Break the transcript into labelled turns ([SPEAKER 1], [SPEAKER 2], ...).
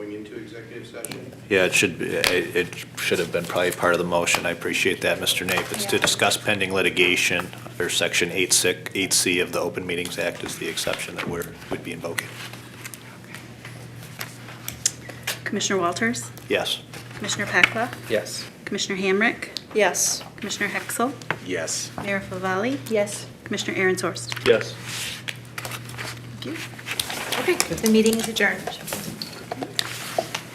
[SPEAKER 1] executive session.
[SPEAKER 2] Yeah, it should, be- it it should have been probably part of the motion. I appreciate that, Mr. Nape. It's to discuss pending litigation under Section 8C of the Open Meetings Act is the exception that we're, would be invoking.
[SPEAKER 3] Commissioner Walters?
[SPEAKER 2] Yes.
[SPEAKER 3] Commissioner Pacla?
[SPEAKER 4] Yes.
[SPEAKER 3] Commissioner Hamrick?
[SPEAKER 5] Yes.
[SPEAKER 3] Commissioner Hexel?
[SPEAKER 4] Yes.
[SPEAKER 3] Mayor Favalli?
[SPEAKER 5] Yes.
[SPEAKER 3] Commissioner Aaron Sorst?
[SPEAKER 2] Yes.
[SPEAKER 3] Thank you.
[SPEAKER 5] Okay, the meeting is adjourned.